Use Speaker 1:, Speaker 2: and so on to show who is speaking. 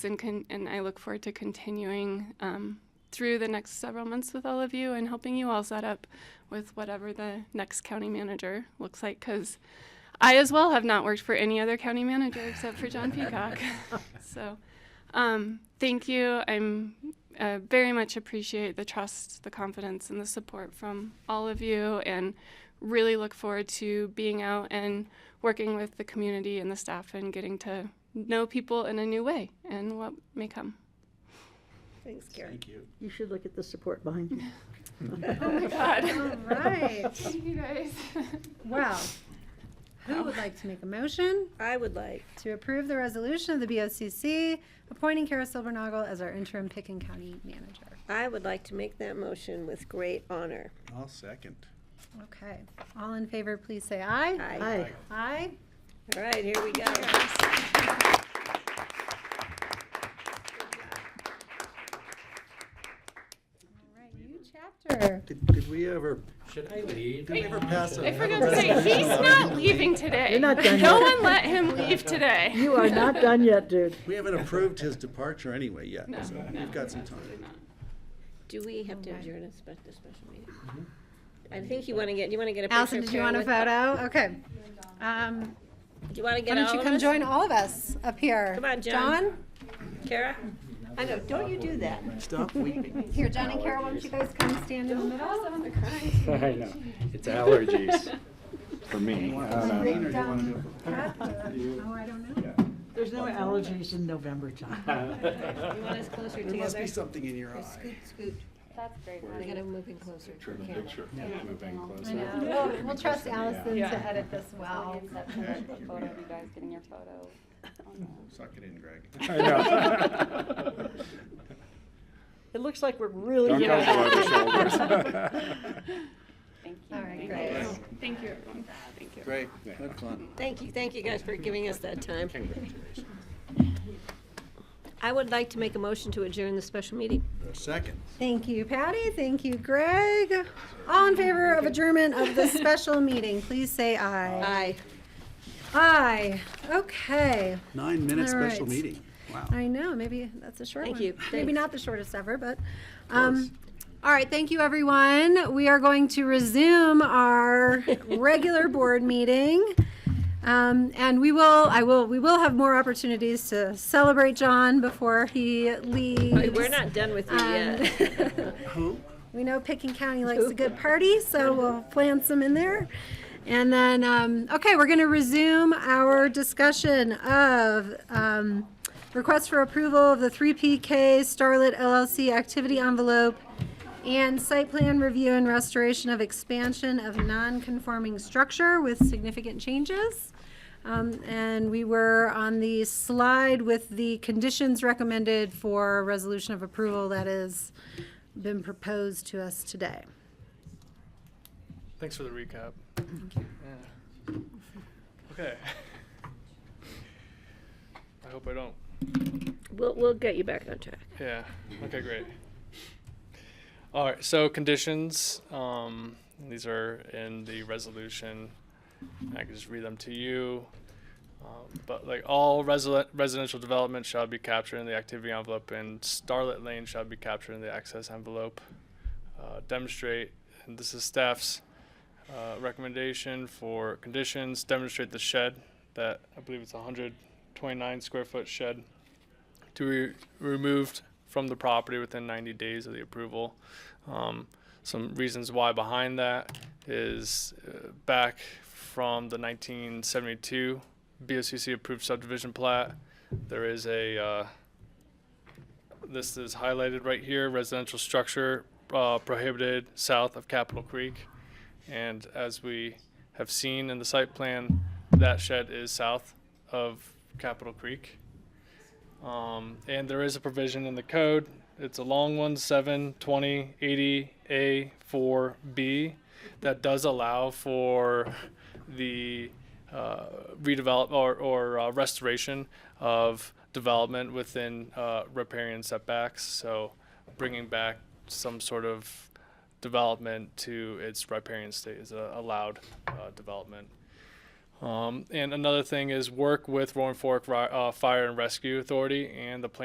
Speaker 1: and con- and I look forward to continuing um, through the next several months with all of you and helping you all set up with whatever the next county manager looks like. Because I as well have not worked for any other county manager except for John Peacock. so um, thank you. I'm uh, very much appreciate the trust, the confidence, and the support from all of you, and really look forward to being out and working with the community and the staff and getting to know people in a new way and what may come.
Speaker 2: Thanks, Karen.
Speaker 3: Thank you.
Speaker 4: You should look at the support behind you.
Speaker 1: Oh my God.
Speaker 2: All right.
Speaker 1: Thank you guys.
Speaker 2: Well, who would like to make a motion
Speaker 4: I would like.
Speaker 2: to approve the resolution of the BOCC appointing Kara Silvernagle as our interim Picken County manager?
Speaker 4: I would like to make that motion with great honor.
Speaker 3: I'll second.
Speaker 2: Okay. All in favor, please say aye.
Speaker 4: Aye.
Speaker 3: Aye.
Speaker 2: Aye.
Speaker 4: All right, here we go.
Speaker 2: All right, new chapter.
Speaker 3: Did, did we ever,
Speaker 5: Should I leave?
Speaker 3: did we ever pass a?
Speaker 1: I forgot to say, he's not leaving today.
Speaker 4: You're not done
Speaker 1: No
Speaker 4: yet.
Speaker 1: one let him leave today.
Speaker 4: You are not done yet, dude.
Speaker 3: We haven't approved his departure anyway yet,
Speaker 1: No,
Speaker 3: so
Speaker 1: no,
Speaker 3: we've got some time.
Speaker 4: Do we have to
Speaker 2: Okay.
Speaker 4: adjourn a spe- the special meeting? I think you want to get, Mm-hmm. you want to get a picture?
Speaker 2: Allison,
Speaker 4: of
Speaker 2: did you
Speaker 4: Karen with-
Speaker 2: want a photo? Okay. Um,
Speaker 4: Do you want to
Speaker 2: why
Speaker 4: get all
Speaker 2: don't
Speaker 4: of us?
Speaker 2: you come join all of us up here?
Speaker 4: Come on, John. Kara? I know, don't you do that.
Speaker 3: Stop weeping.
Speaker 2: John? Here, John and Kara, why don't you guys come stand in the middle?
Speaker 5: I know. It's allergies for me. I don't know.
Speaker 3: Rain or you wanna do it?
Speaker 2: Oh, I don't know.
Speaker 6: There's no allergies in November time.
Speaker 4: You want us closer
Speaker 3: There must be
Speaker 4: together?
Speaker 3: something in your eye.
Speaker 4: Scoot, scoot. That's great. We gotta move in closer. to the camera.
Speaker 5: Moving
Speaker 2: I
Speaker 5: closer.
Speaker 2: know. We'll- We'll trust Allison to
Speaker 1: Yeah.
Speaker 2: edit this well.
Speaker 7: photo of you guys getting your photo.
Speaker 3: Suck it in, Greg.
Speaker 5: I know.
Speaker 6: It looks like we're really.
Speaker 5: Don't go
Speaker 6: young.
Speaker 5: over the shoulders.
Speaker 7: Thank you.
Speaker 2: All right, great.
Speaker 1: Thank you, everyone. Thank you.
Speaker 3: Great, have fun.
Speaker 4: Thank you, thank you guys for giving us that time. I would like to make a motion to adjourn the special meeting.
Speaker 3: Second.
Speaker 2: Thank you, Patty. Thank you, Greg. All in favor of adjournment of this special meeting, please say aye.
Speaker 4: Aye.
Speaker 2: Aye. Okay.
Speaker 3: Nine-minute
Speaker 2: All
Speaker 3: special
Speaker 2: right.
Speaker 3: meeting. Wow.
Speaker 2: I know, maybe that's a short
Speaker 4: Thank
Speaker 2: one.
Speaker 4: you.
Speaker 2: Maybe
Speaker 4: Thanks.
Speaker 2: not the shortest ever, but, um, all right, thank you, everyone. We are going to resume our regular board meeting. Um, and we will, I will, we will have more opportunities to celebrate John before he
Speaker 4: Hey,
Speaker 2: leaves.
Speaker 4: We're not done with you yet.
Speaker 2: Um,
Speaker 3: Who?
Speaker 2: We know Picken County likes a good party, so we'll plan some in there. And then, um, okay, we're gonna resume our discussion of, um, request for approval of the three PK Starlit LLC activity envelope and site plan review and restoration of expansion of non-conforming structure with significant changes. Um, and we were on the slide with the conditions recommended for resolution of approval that is been proposed to us today.
Speaker 8: Thanks for the recap. Yeah. Okay. I hope I don't.
Speaker 4: We'll, we'll get you back on track.
Speaker 8: Yeah. Okay, great. All right. So conditions. Um, these are in the resolution. I can just read them to you. Um, but like all resi- residential development shall be captured in the activity envelope, and Starlit Lane shall be captured in the access envelope. Uh, demonstrate, and this is staff's uh, recommendation for conditions. Demonstrate the shed that I believe it's 129 square foot shed to be removed from the property within 90 days of the approval. Um, some reasons why behind that is uh, back from the 1972 BOCC approved subdivision plat. There is a uh, this is highlighted right here residential structure uh, prohibited south of Capitol Creek. And as we have seen in the site plan, that shed is south of Capitol Creek. Um, and there is a provision in the code. It's a long one, seven twenty eighty A four B, that does allow for the uh, redevelop or, or uh, restoration of development within uh, riparian setbacks. So bringing back some sort of development to its riparian state is a allowed uh, development. Um, and another thing is work with Roaring Fork Ri- uh, Fire and Rescue Authority and the plan.